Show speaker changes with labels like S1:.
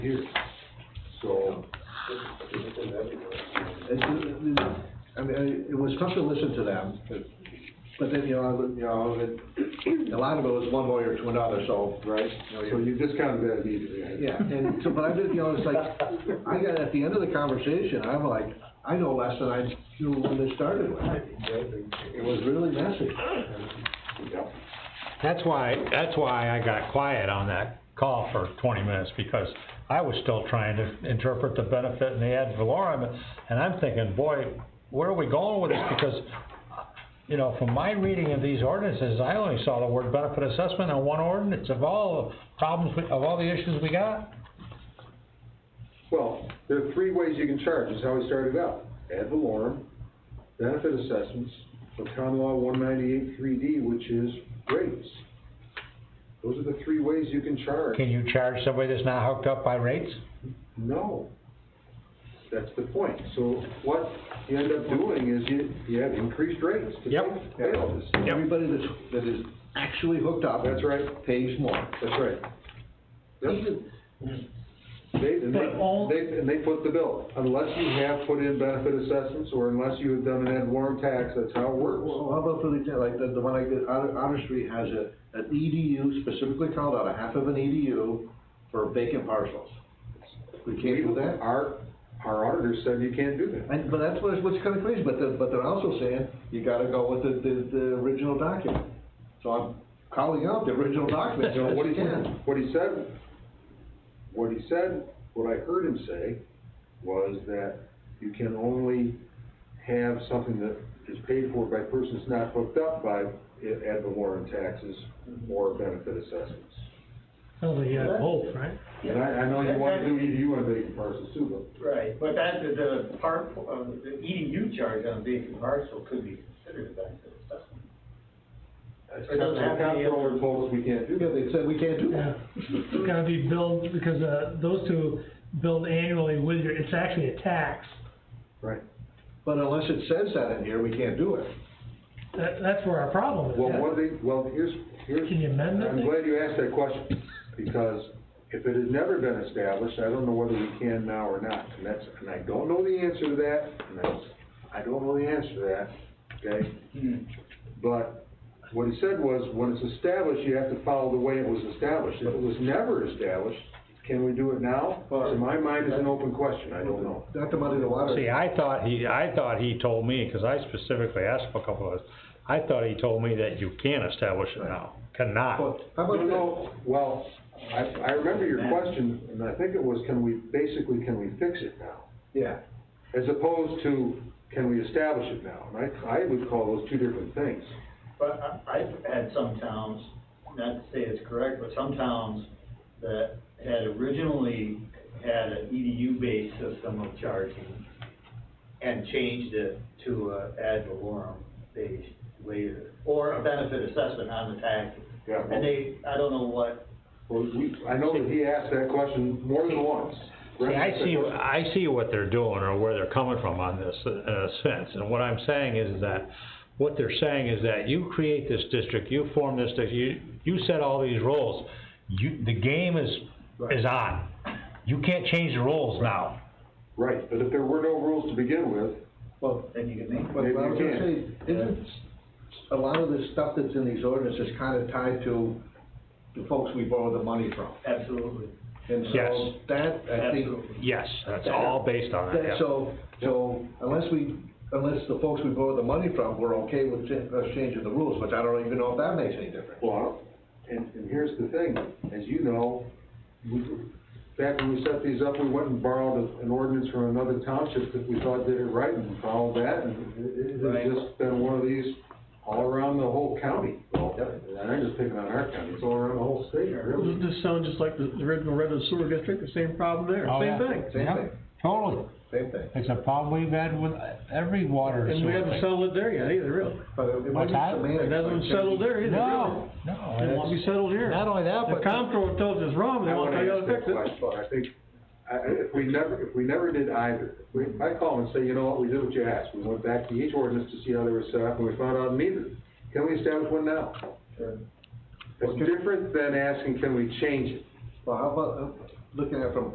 S1: here. So,
S2: It's- it- it- I mean, I- it was tough to listen to them, but- but then, you know, I would- you know, it- a lot of it was one lawyer to another, so, right? You know,
S1: so
S2: you-
S1: you discounted that immediately.
S2: Yeah, and so, but I did, you know, it's like, I got, at the end of the conversation, I'm like, I know less than I knew when they started with. It was really messy.
S1: Yep.
S3: That's why, that's why I got quiet on that call for twenty minutes, because I was still trying to interpret the benefit and the ad valorem, and I'm thinking, boy, where are we going with this? Because, you know, from my reading of these ordinances, I only saw the word benefit assessment on one ordinance of all the problems, we- of all the issues we got.
S1: Well, there are three ways you can charge, is how we started out. Ad valorem, benefit assessments, or common law one ninety-eight three D, which is rates. Those are the three ways you can charge.
S3: Can you charge somebody that's not hooked up by rates?
S1: No. That's the point. So what you end up doing is you, you have increased rates to
S3: Yep.
S1: pay pay all this.
S2: Everybody that's, that is actually hooked up.
S1: That's right.
S2: Pays more.
S1: That's right. Yep. Mm-hmm. They, and
S4: But all-
S1: they, they, and they put the bill, unless you have put in benefit assessments, or unless you have done an ad valorem tax, that's how it works.
S2: Well, how about for the, example, like, the, the one I did, Otter, Otter Street has a, an EDU specifically called out, a half of an EDU for vacant parcels. We can't do that?
S1: Our, our auditor said you can't do that.
S2: And, but that's what's, what's kinda crazy, but the, but they're also saying, you gotta go with the, the, the original document. So I'm calling out the original document,
S1: You know, what he,
S2: you can.
S1: what he said, what he said, what I heard him say, was that you can only have something that is paid for by persons not hooked up by i- ad valorem taxes or benefit assessments.
S4: Sounds like you have both, right?
S1: And I, I know you wanna do, you wanna make it parcels too, but
S5: Right, but that, the, the part, uh, the EDU charge on vacant parcel could be considered a benefit assessment. It doesn't have to be-
S1: Comptroller told us we can't do
S2: Yeah,
S1: that.
S2: they said we can't do that.
S4: It's gotta be billed, because, uh, those two billed annually with your, it's actually a tax.
S1: Right.
S2: But unless it says that in here, we can't do it.
S4: That, that's where our problem is.
S1: Well, what they, well, here's, here's.
S4: Can you amend that
S1: I'm
S4: thing?
S1: glad you asked that question, because if it has never been established, I don't know whether we can now or not. And that's, and I don't know the answer to that, and that's, I don't know the answer to that, okay? But what he said was, when it's established, you have to follow the way it was established. If it was never established, can we do it now? To my mind, it's an open question, I don't know.
S2: Not to muddy the water.
S3: See, I thought he, I thought he told me, 'cause I specifically asked for a couple of us, I thought he told me that you can establish it now, cannot.
S2: But How
S1: No,
S2: about that?
S1: no, well, I, I remember your question, and I think it was, can we, basically, can we fix it now?
S2: Yeah.
S1: As opposed to, can we establish it now? And I, I would call those two different things.
S5: But I, I've had some towns, not to say it's correct, but some towns that had originally had E an EDU-based system of charging and changed it to a ad valorem based later, or a benefit assessment on the taxes.
S1: Yeah.
S5: And they, I don't know what,
S1: Well, we, I know that he asked that question more than once.
S3: See, I see, I see what they're doing or where they're coming from on this, in a sense, and what I'm saying is that, what they're saying is that you create this district, you form this, district, you, you set all these rules, you, the game is, is on. You can't change the rules now.
S1: Right, but if there were no rules to begin with,
S2: Well,
S5: then you can make.
S2: But
S1: Maybe
S2: what I was
S1: you
S2: gonna say,
S1: can.
S2: isn't a lot of the stuff that's in these ordinances is kinda tied to the folks we borrow the money from?
S5: Absolutely.
S2: And so
S3: Yes.
S2: that, I think,
S5: Absolutely.
S3: Yes, that's all based on that,
S2: that,
S3: yeah.
S2: so, so unless we, unless the folks we borrow the money from were okay with cha- us changing the rules, which I don't even know if that makes any difference.
S1: well, and, and here's the thing, as you know, we, back when we set these up, we went and borrowed a- an ordinance from another township that we thought did it right and followed that, and it, it-
S5: Right.
S1: it's just been one of these all around the whole county. Well, and I'm just picking on our county, it's all around the whole state, really.
S6: Doesn't this sound just like the the original Redwood Sewer District, the same problem there,
S3: Oh, yeah.
S6: same thing?
S2: Same
S3: Yeah,
S2: thing.
S3: Totally.
S2: Same thing.
S3: It's a problem we've had with every water and
S6: And we
S3: sewer
S6: haven't
S3: thing.
S6: settled it there yet either, really.
S2: But it- it might be
S3: that?
S2: semantics,
S6: It hasn't
S2: like-
S6: settled there either, really.
S3: No, no.
S6: It won't be
S3: that's-
S6: settled here.
S3: Not only that,
S6: The
S3: but.
S6: comptroller tells us wrong, they
S1: I
S6: want
S1: wanna
S6: to tell you
S1: ask
S6: how to
S1: that
S6: fix it.
S1: question, I think, I, I- if we never, if we never did either, we, I call and say, you know what, we did what you asked, we went back to each ordinance to see how they were set up, and we found out neither. Can we establish one now?
S5: Sure.
S1: It's different than asking, can we change it?
S2: Well, how about, uh, looking at it from